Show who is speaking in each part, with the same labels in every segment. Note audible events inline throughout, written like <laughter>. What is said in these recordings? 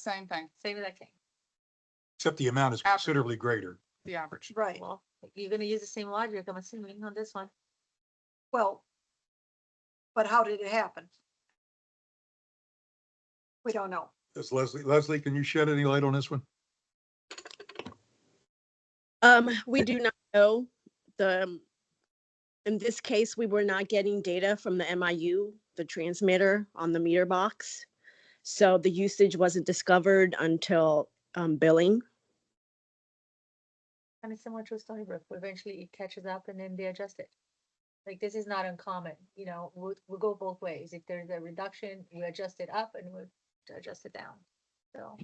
Speaker 1: Same thing,
Speaker 2: Same with that king,
Speaker 3: except the amount is
Speaker 1: Average.
Speaker 3: considerably greater.
Speaker 1: the average.
Speaker 4: Right,
Speaker 2: well, you're gonna use the same logic, I'm assuming, on this one.
Speaker 4: well, but how did it happen? We don't know.
Speaker 3: Does Leslie, Leslie, can you shed any light on this one?
Speaker 5: Um, we do not know the, um, in this case, we were not getting data from the MIU, the transmitter on the meter box. So the usage wasn't discovered until, um, billing.
Speaker 2: Kind of similar to a Stony Brook, where eventually it catches up and then they adjust it. Like, this is not uncommon, you know, we'll, we'll go both ways. If there's a reduction, we adjust it up and we adjust it down. So,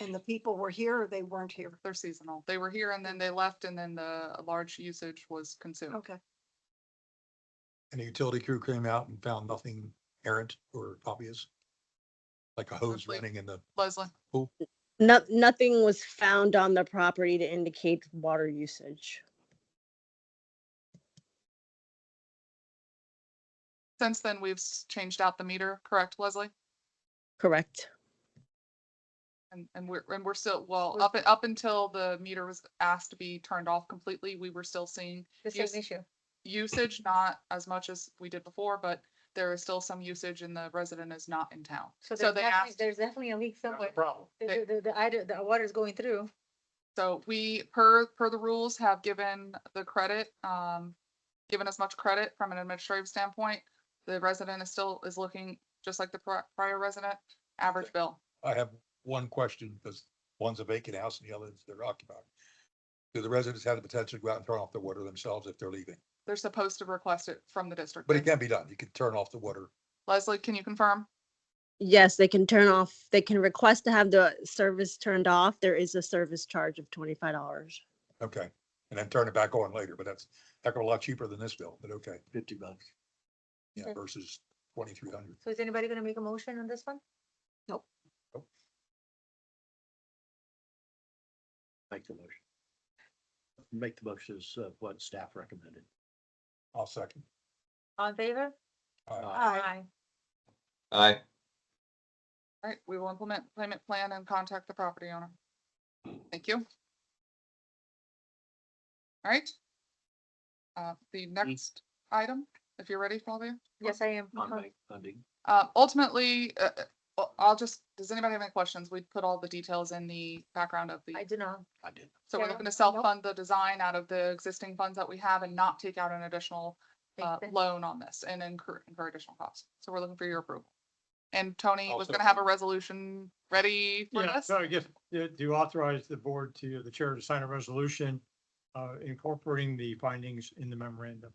Speaker 4: And the people were here or they weren't here.
Speaker 1: They're seasonal. They were here and then they left and then the large usage was
Speaker 2: Oh.
Speaker 1: consumed.
Speaker 4: Okay,
Speaker 3: And the utility crew came out and found nothing errant or obvious? Like a hose
Speaker 1: Leslie.
Speaker 3: running in the,
Speaker 1: Leslie,
Speaker 5: No, nothing was found on the property to indicate water usage.
Speaker 1: since then we've s- changed out the meter, correct, Leslie?
Speaker 5: Correct.
Speaker 1: And, and we're, and we're still, well,
Speaker 2: We're-
Speaker 1: up, up until the meter was asked to be turned off completely, we were still seeing
Speaker 2: the
Speaker 1: Yes.
Speaker 2: same issue.
Speaker 1: usage, not as much as we did before, but there is still some usage and the resident is not in town.
Speaker 2: So
Speaker 1: So
Speaker 2: there's
Speaker 1: they
Speaker 2: definitely,
Speaker 1: asked,
Speaker 2: there's definitely a leak somewhere.
Speaker 3: problem.
Speaker 1: They-
Speaker 2: The, the, the, ide- the water's going through.
Speaker 1: so we, per, per the rules, have given the credit, um, given as much credit from an administrative standpoint. The resident is still, is looking, just like the pri- prior resident, average bill.
Speaker 3: I have one question because one's a vacant house and the other is they're occupied. Do the residents have the potential to go out and turn off the water themselves if they're leaving?
Speaker 1: They're supposed to request it from the district.
Speaker 3: But it can be done. You can turn off the water.
Speaker 1: Leslie, can you confirm?
Speaker 5: Yes, they can turn off, they can request to have the service turned off. There is a service charge of twenty-five dollars.
Speaker 3: Okay. And then turn it back on later, but that's, that's a lot cheaper than this bill, but okay. Fifty bucks. Yeah,
Speaker 2: Okay.
Speaker 3: versus twenty-three hundred.
Speaker 2: So is anybody gonna make a motion on this one?
Speaker 6: Make the motion. Make the motion as uh, what staff recommended.
Speaker 3: I'll second.
Speaker 2: All in favor?
Speaker 3: Uh,
Speaker 4: Aye.
Speaker 7: Aye.
Speaker 1: All right, we will implement payment plan and contact the property owner. Thank you. All right. Uh, the next item, if you're ready, Flavia.
Speaker 2: Yes, I am.
Speaker 6: On bank funding.
Speaker 1: Uh, ultimately, uh, uh, well, I'll just, does anybody have any questions? We put all the details in the background of the,
Speaker 2: I do not.
Speaker 6: I did.
Speaker 1: so we're
Speaker 2: yeah,
Speaker 1: looking to
Speaker 2: nope.
Speaker 1: self-fund the design out of the existing funds that we have and not take out an additional
Speaker 2: think
Speaker 1: uh,
Speaker 2: that-
Speaker 1: loan on this and incur, incur additional costs. So we're looking for your approval. And Tony was
Speaker 8: Also-
Speaker 1: gonna have a resolution ready for
Speaker 8: Yeah,
Speaker 1: this.
Speaker 8: so I guess to to authorize the board to, the chair to sign a resolution uh, incorporating the findings in the memorandum.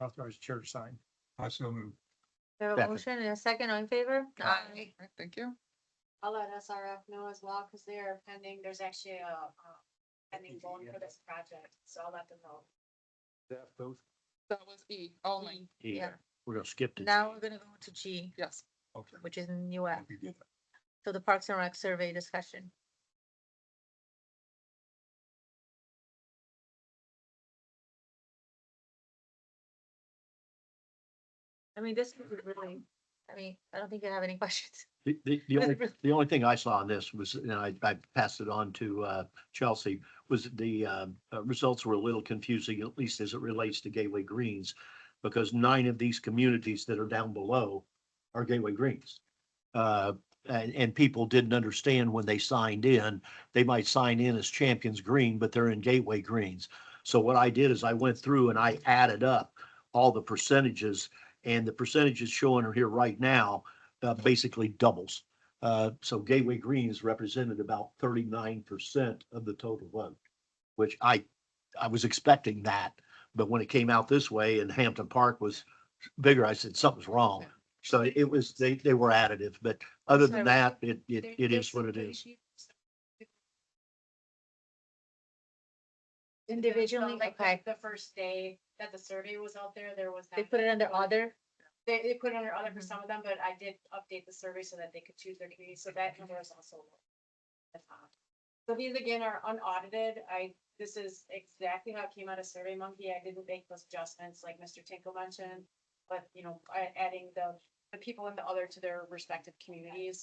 Speaker 8: Authorize the chair to sign.
Speaker 3: I so move.
Speaker 2: There a
Speaker 6: Second.
Speaker 2: motion and a second, all in favor?
Speaker 1: Alright, Thank you.
Speaker 9: I'll let SRF know as well, because they're pending, there's actually a, um, pending loan for this project, so I'll let them know.
Speaker 6: Staff both.
Speaker 1: That was E only,
Speaker 6: Yeah,
Speaker 1: Yeah.
Speaker 6: we're gonna skip to.
Speaker 2: Now we're gonna go to G,
Speaker 1: yes.
Speaker 3: Okay.
Speaker 2: which is new app,
Speaker 3: You did that.
Speaker 2: so the Parks and Rec survey discussion. I mean, this is really, I mean, I don't think you have any <laughs> questions.
Speaker 6: The, the, the only, the only thing I saw on this was, and I, I passed it on to, uh, Chelsea, was the, um, uh, results were a little confusing, at least as it relates to Gateway Greens. Because nine of these communities that are down below are Gateway Greens. Uh, and, and people didn't understand when they signed in, they might sign in as Champions Green, but they're in Gateway Greens. So what I did is I went through and I added up all the percentages and the percentages showing are here right now, uh, basically doubles. Uh, so Gateway Greens represented about thirty-nine percent of the total vote, which I, I was expecting that. But when it came out this way and Hampton Park was bigger, I said something's wrong. So it was, they, they were additive, but other
Speaker 9: So
Speaker 6: than that, it, it,
Speaker 9: There-
Speaker 6: it
Speaker 9: there's
Speaker 6: is what it
Speaker 9: some
Speaker 6: is.
Speaker 9: issue, so-
Speaker 2: Individually,
Speaker 9: Like, the-
Speaker 2: okay.
Speaker 9: The first day that the survey was out there, there was.
Speaker 2: They
Speaker 9: not-
Speaker 2: put it under other,
Speaker 9: They, they put it under other for
Speaker 2: Mhm.
Speaker 9: some of them, but I did update the survey so that they could choose their community, so that number is also. low at the top. So these again are unaudited. I, this is exactly how it came out of Survey Monkey. I didn't make those adjustments like Mr. Tinkle mentioned. But, you know, I, adding the the people in the other to their respective communities.